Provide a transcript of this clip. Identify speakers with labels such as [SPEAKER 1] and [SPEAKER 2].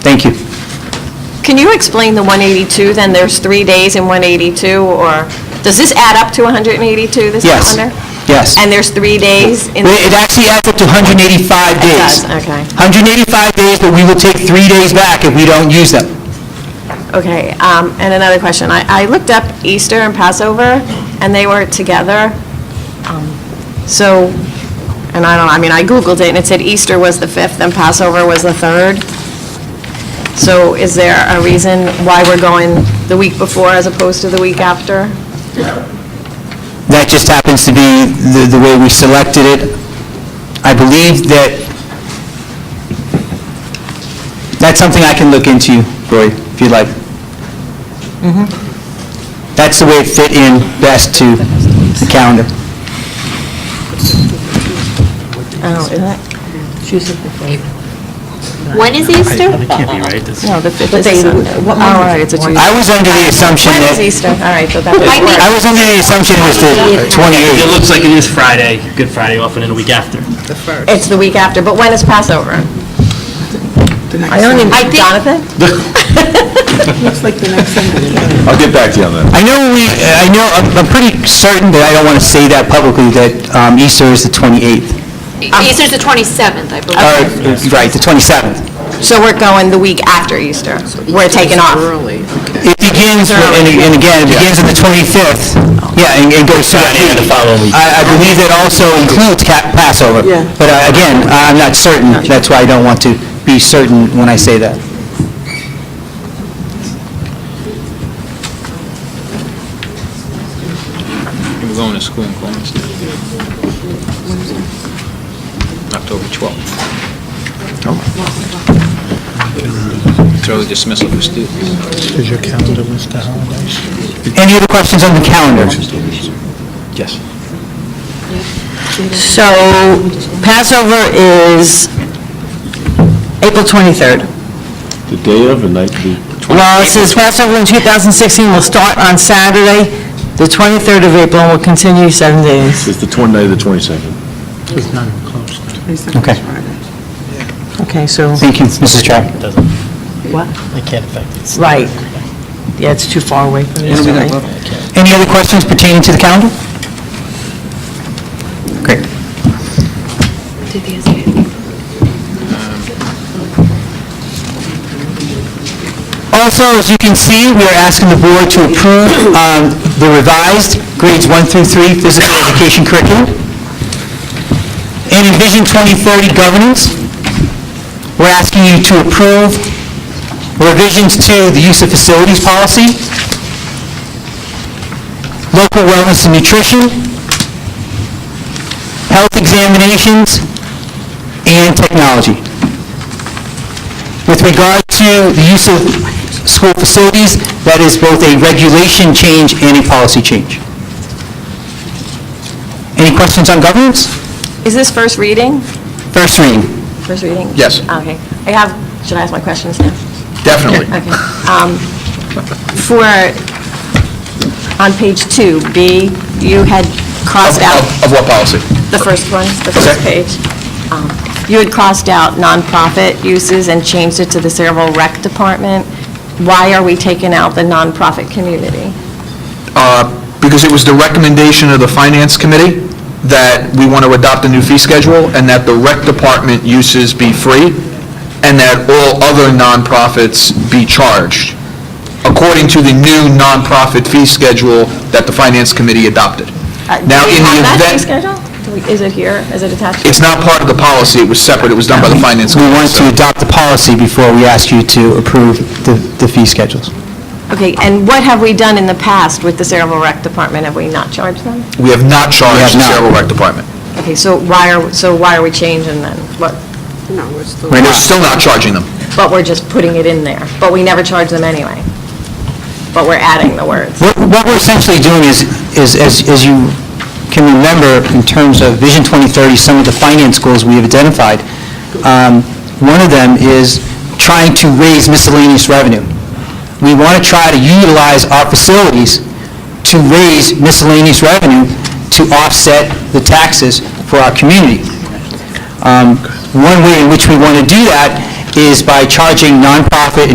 [SPEAKER 1] Thank you.
[SPEAKER 2] Can you explain the 182, then there's three days in 182, or, does this add up to 182, this
[SPEAKER 1] Yes.
[SPEAKER 2] calendar?
[SPEAKER 1] Yes.
[SPEAKER 2] And there's three days in...
[SPEAKER 1] Well, It actually adds up to 185 days.
[SPEAKER 2] does, okay.
[SPEAKER 1] 185 days, but we will take three days back if we don't use them.
[SPEAKER 2] Okay, um, and another question. I I looked up Easter and Passover, and they were together. Um, So, and I don't, I mean, I Googled it, and it said Easter was the 5th and Passover was the 3rd. So is there a reason why we're going the week before as opposed to the week after?
[SPEAKER 1] That just happens to be the the way we selected it. I believe that, that's something I can look into, Roy, if you'd like.
[SPEAKER 2] Mm-hmm.
[SPEAKER 1] That's the way it fit in best to the calendar.
[SPEAKER 2] I don't, is that?
[SPEAKER 3] When is Easter?
[SPEAKER 2] No, the 5th is a Sunday. Oh, all right, it's a Tuesday.
[SPEAKER 1] I was under the assumption
[SPEAKER 2] When
[SPEAKER 1] that,
[SPEAKER 2] is Easter? All right, so that would
[SPEAKER 3] I
[SPEAKER 2] work.
[SPEAKER 3] think-
[SPEAKER 1] I was under the assumption it was the 28th.
[SPEAKER 4] It looks like it is Friday, Good Friday, often in a week after.
[SPEAKER 2] It's the week after, but when is Passover? I don't even,
[SPEAKER 3] I think-
[SPEAKER 2] Jonathan?
[SPEAKER 5] I'll get back to you on that.
[SPEAKER 1] I know we, I know, I'm I'm pretty certain that I don't want to say that publicly, that um, Easter is the 28th.
[SPEAKER 3] Easter's the 27th, I
[SPEAKER 1] Or,
[SPEAKER 3] believe.
[SPEAKER 1] right, the 27th.
[SPEAKER 2] So we're going the week after Easter. We're taking off.
[SPEAKER 1] It begins, with- and and again, it begins on the 25th, yeah, and and goes through.
[SPEAKER 4] Friday of the following week.
[SPEAKER 1] I I believe that also includes ca- Passover.
[SPEAKER 6] Yeah.
[SPEAKER 1] But uh, again, I'm not certain, that's why I don't want to be certain when I say that.
[SPEAKER 7] We're going to school in Columbus now. October 12th. It's early dismissal for students.
[SPEAKER 8] Does your calendar list the holidays?
[SPEAKER 1] Any other questions on the calendar?
[SPEAKER 7] Yes.
[SPEAKER 6] So Passover is April 23rd.
[SPEAKER 5] The day of and night
[SPEAKER 6] Well, it says Passover in 2016 will start on Saturday, the 23rd of April, and will continue seven days.
[SPEAKER 5] is the 20 night of the 22nd.
[SPEAKER 8] It's not even close.
[SPEAKER 1] Okay,
[SPEAKER 6] Okay, so,
[SPEAKER 1] thank you, Mrs. Trout.
[SPEAKER 4] It can't affect it.
[SPEAKER 6] right. Yeah, it's too far away from this, right?
[SPEAKER 1] Any other questions pertaining to the calendar? Great. Also, as you can see, we are asking the board to approve um, the revised grades 1 through 3 physical education curriculum and Envision 2030 governance. We're asking you to approve revisions to the use of facilities policy, local wellness and nutrition, health examinations, and technology. With regard to the use of school facilities, that is both a regulation change and a policy change. Any questions on governance?
[SPEAKER 2] Is this first reading?
[SPEAKER 1] First reading.
[SPEAKER 2] First reading? Oh,
[SPEAKER 5] Yes.
[SPEAKER 2] Okay. I have, should I ask my questions now?
[SPEAKER 5] Definitely.
[SPEAKER 2] Okay. Um, For, on page two, B, you had crossed out
[SPEAKER 5] Of what policy?
[SPEAKER 2] the first one, the first
[SPEAKER 5] Okay.
[SPEAKER 2] page. Um, You had crossed out nonprofit uses and changed it to the Cerebral Rec Department. Why are we taking out the nonprofit community?
[SPEAKER 9] because it was the recommendation of the Finance Committee that we want to adopt a new fee schedule and that the rec department uses be free and that all other nonprofits be charged, according to the new nonprofit fee schedule that the Finance Committee adopted.
[SPEAKER 2] Uh, do
[SPEAKER 9] Now,
[SPEAKER 2] we
[SPEAKER 9] in
[SPEAKER 2] have
[SPEAKER 9] the
[SPEAKER 2] that fee
[SPEAKER 9] event-
[SPEAKER 2] schedule? Do we- Is it here? Is it attached?
[SPEAKER 9] It's not part of the policy, it was separate, it was done by the Finance
[SPEAKER 1] We
[SPEAKER 9] Committee.
[SPEAKER 1] want to adopt the policy before we ask you to approve the the fee schedules.
[SPEAKER 2] Okay, and what have we done in the past with the Cerebral Rec Department? Have we not charged them?
[SPEAKER 9] We have not charged the
[SPEAKER 1] not.
[SPEAKER 9] Cerebral Rec Department.
[SPEAKER 2] Okay, so why are, so why are we changing then? What,
[SPEAKER 9] We're still not charging them.
[SPEAKER 2] but we're just putting it in there, but we never charge them anyway. But we're adding the words.
[SPEAKER 1] What what we're essentially doing is, is as as you can remember, in terms of Vision 2030, some of the finance goals we have identified, um, one of them is trying to raise miscellaneous revenue. We want to try to utilize our facilities to raise miscellaneous revenue to offset the taxes for our community. Um, One way in which we want to do that is by charging nonprofit